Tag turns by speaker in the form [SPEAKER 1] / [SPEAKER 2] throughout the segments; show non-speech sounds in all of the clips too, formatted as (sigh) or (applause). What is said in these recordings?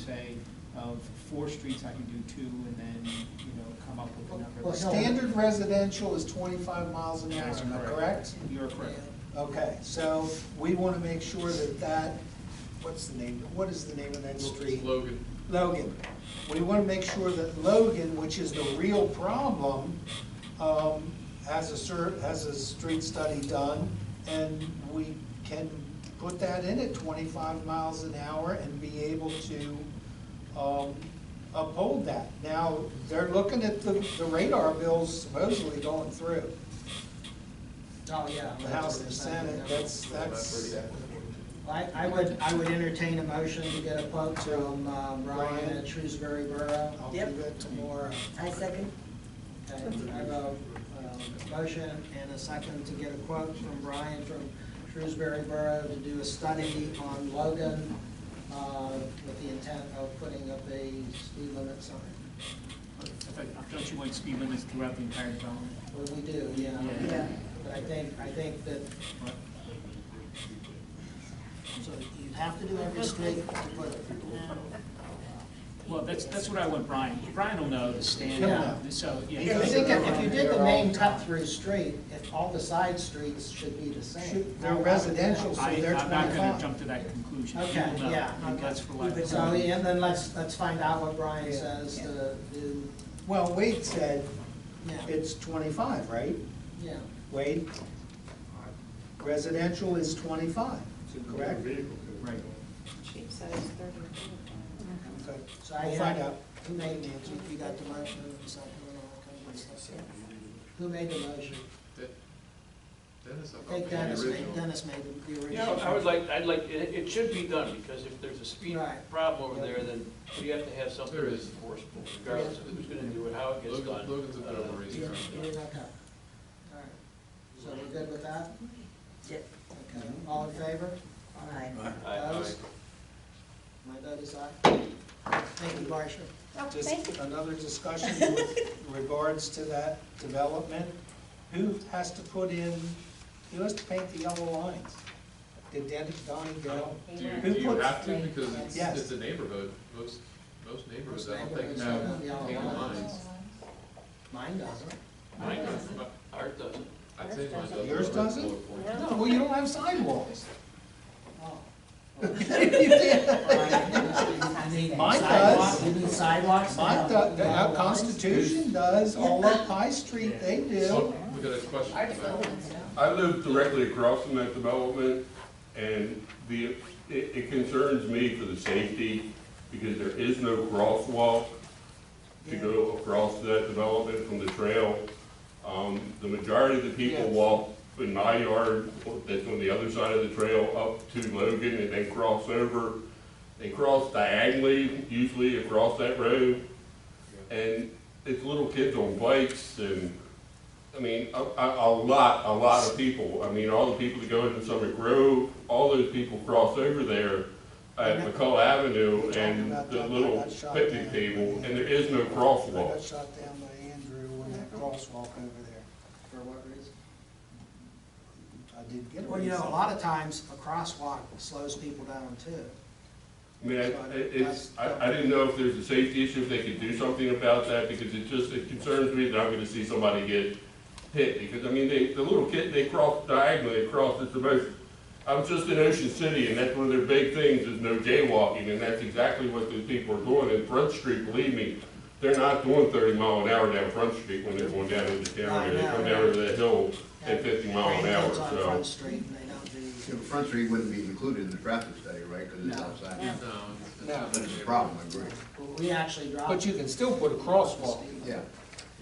[SPEAKER 1] survey of four streets, I can do two, and then, you know, come up with a number.
[SPEAKER 2] Well,
[SPEAKER 1] that's-
[SPEAKER 2] standard residential is twenty-five miles an hour,
[SPEAKER 1] That's
[SPEAKER 2] am I correct?
[SPEAKER 1] You're correct.
[SPEAKER 2] Okay, so we want to make sure that that, what's the name, what is the name of that street?
[SPEAKER 3] Logan.
[SPEAKER 2] Logan. We want to make sure that Logan, which is the real problem, um, has a sur, has a street study done, and we can put that in at twenty-five miles an hour and be able to, um, uphold that. Now, they're looking at the, the radar bills supposedly going through.
[SPEAKER 4] Oh, yeah.
[SPEAKER 2] The House and the Senate, that's, that's,
[SPEAKER 4] I, I would, I would entertain a motion to get a quote from um, Ryan at Shrewsbury Borough.
[SPEAKER 2] I'll do
[SPEAKER 5] Yep.
[SPEAKER 2] that tomorrow.
[SPEAKER 5] I second.
[SPEAKER 4] Okay, I have a um, motion and a second to get a quote from Brian from Shrewsbury Borough to do a study on Logan uh, with the intent of putting up a speed limit sign.
[SPEAKER 1] In fact, Don't you want speed limits throughout the entire development?
[SPEAKER 4] Well, we do, yeah.
[SPEAKER 5] Yeah.
[SPEAKER 4] But I think, I think that, so you have to do every street to put it.
[SPEAKER 1] Well, that's, that's what I want Brian, Brian will know the
[SPEAKER 4] Yeah.
[SPEAKER 1] standard, so, yeah.
[SPEAKER 4] If you did the, if you did the main cut-through street, if all the side streets should be the same.
[SPEAKER 2] Should- they're residential, so
[SPEAKER 1] I,
[SPEAKER 2] they're
[SPEAKER 1] I'm not gonna
[SPEAKER 2] 25.
[SPEAKER 1] jump to that conclusion. He
[SPEAKER 4] Okay,
[SPEAKER 1] will know,
[SPEAKER 4] yeah,
[SPEAKER 1] and
[SPEAKER 4] okay.
[SPEAKER 1] That's for life.
[SPEAKER 4] So, and then let's, let's find out what Brian
[SPEAKER 2] Yeah.
[SPEAKER 4] says to do,
[SPEAKER 2] Well, Wade said
[SPEAKER 4] yeah,
[SPEAKER 2] it's twenty-five, right?
[SPEAKER 4] yeah.
[SPEAKER 2] Wade? Residential is twenty-five, correct?
[SPEAKER 1] Right.
[SPEAKER 6] Chief says thirty or forty.
[SPEAKER 2] Okay,
[SPEAKER 4] So I
[SPEAKER 2] We'll find
[SPEAKER 4] had-
[SPEAKER 2] out.
[SPEAKER 4] Who made the, you got the motion, and second, and all that kind of stuff. Who made the motion?
[SPEAKER 3] Dennis,
[SPEAKER 4] I
[SPEAKER 3] I
[SPEAKER 4] think
[SPEAKER 3] thought the
[SPEAKER 4] Dennis made,
[SPEAKER 3] original.
[SPEAKER 4] Dennis made the- the
[SPEAKER 7] You
[SPEAKER 4] original.
[SPEAKER 7] know, I would like, I'd like, it, it should be done, because if there's a speed
[SPEAKER 4] Right.
[SPEAKER 7] problem over there, then we have to have something
[SPEAKER 3] There
[SPEAKER 7] that's
[SPEAKER 3] is.
[SPEAKER 7] enforceable, regardless of who's gonna do it, how it gets
[SPEAKER 3] Logan-
[SPEAKER 7] done.
[SPEAKER 3] Logan's a bit of a
[SPEAKER 7] Uh,
[SPEAKER 4] You're-
[SPEAKER 3] reason.
[SPEAKER 4] you're okay. All right. So we're good with that?
[SPEAKER 5] Yep.
[SPEAKER 4] Okay, all in favor?
[SPEAKER 5] Aye.
[SPEAKER 7] I- I-
[SPEAKER 4] Opposed? My vote is aye. Thank you, Marcia.
[SPEAKER 2] Just another discussion with regards to that development. Who has to put in, who has to paint the yellow lines? Did Danny, Donnie go?
[SPEAKER 3] Do you,
[SPEAKER 2] Who
[SPEAKER 3] do you
[SPEAKER 2] puts-
[SPEAKER 3] have to, because it's,
[SPEAKER 2] Yes.
[SPEAKER 3] it's a neighborhood, most, most neighborhoods, I don't think
[SPEAKER 4] Neighborhoods
[SPEAKER 3] have
[SPEAKER 4] have yellow
[SPEAKER 3] painted
[SPEAKER 4] lines.
[SPEAKER 3] lines.
[SPEAKER 4] Mine doesn't.
[SPEAKER 7] Mine doesn't, but ours doesn't.
[SPEAKER 3] I'd say mine doesn't.
[SPEAKER 2] Yours
[SPEAKER 3] but
[SPEAKER 2] doesn't?
[SPEAKER 3] it's colorful.
[SPEAKER 2] No, well, you don't have sidewalks.
[SPEAKER 4] (laughs) Oh.
[SPEAKER 2] Mine
[SPEAKER 4] Mine
[SPEAKER 2] does.
[SPEAKER 4] You need sidewalks?
[SPEAKER 2] My, the, the our Constitution does, all up High Street, they do.
[SPEAKER 3] Oh, we got a question.
[SPEAKER 6] Our
[SPEAKER 3] about-
[SPEAKER 6] developments, no.
[SPEAKER 8] I live directly across from that development, and the, it, it concerns me for the safety, because there is no crosswalk to go across that development from the trail. Um, the majority of the people
[SPEAKER 2] Yes.
[SPEAKER 8] walk in my yard, that's on the other side of the trail, up to Logan, and then cross over. They cross diagonally, usually across that road, and it's little kids on bikes, and, I mean, a, a, a lot, a lot of people. I mean, all the people that go into Summit Grove, all those people cross over there at McCullough Avenue and the little picnic table, and there is no
[SPEAKER 2] I got
[SPEAKER 8] crosswalk.
[SPEAKER 2] shot down by Andrew when that crosswalk over there.
[SPEAKER 4] For what reason?
[SPEAKER 2] I did get a.
[SPEAKER 4] Well, you know, a
[SPEAKER 2] reason.
[SPEAKER 4] lot of times a crosswalk slows people down too.
[SPEAKER 8] I mean, it- it's, I, I didn't know if there's a safety issue, if they could do something about that, because it just, it concerns me that I'm gonna see somebody get hit, because, I mean, they, the little kid, they cross diagonally across, it's the most, I was just in Ocean City, and that's one of their big things, is no jaywalking, and that's exactly what those people are doing, and Front Street, believe me, they're not doing thirty mile an hour down Front Street when they're going down into town, or they come down over that hill at fifty mile an hour,
[SPEAKER 4] Grandkids on Front
[SPEAKER 8] so.
[SPEAKER 4] Street and they don't do.
[SPEAKER 9] So Front Street wouldn't be included in the traffic study, right, because it's outside?
[SPEAKER 3] No, it's-
[SPEAKER 2] No.
[SPEAKER 3] it's.
[SPEAKER 9] But it's a problem, I agree,
[SPEAKER 4] Well, We actually drive.
[SPEAKER 2] But you can still put a crosswalk.
[SPEAKER 9] yeah.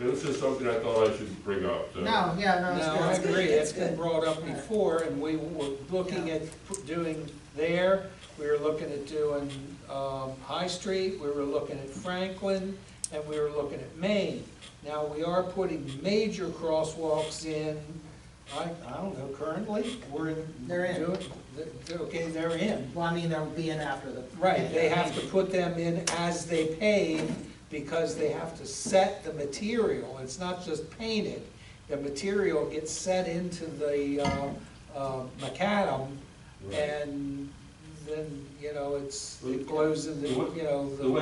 [SPEAKER 8] It was just something I thought I should bring up, so.
[SPEAKER 4] No, yeah, no, it's
[SPEAKER 2] No,
[SPEAKER 4] good.
[SPEAKER 2] I agree, it's been
[SPEAKER 5] good.
[SPEAKER 2] brought up before, and we were looking
[SPEAKER 4] Yeah.
[SPEAKER 2] at p- doing there, we were looking at doing um, High Street, we were looking at Franklin, and we were looking at Maine. Now, we are putting major crosswalks in, I, I don't know, currently, we're in.
[SPEAKER 4] They're in.
[SPEAKER 2] doing- they're- they're- Okay, they're in.
[SPEAKER 4] Well, I mean, they'll be in after the.
[SPEAKER 2] Right, they have to put them in as they pave, because they have to set the material, it's not just painted. The material gets set into the, uh, uh, macadam,
[SPEAKER 8] Right.
[SPEAKER 2] and then, you know, it's, it glows in the, you know, the.
[SPEAKER 8] The way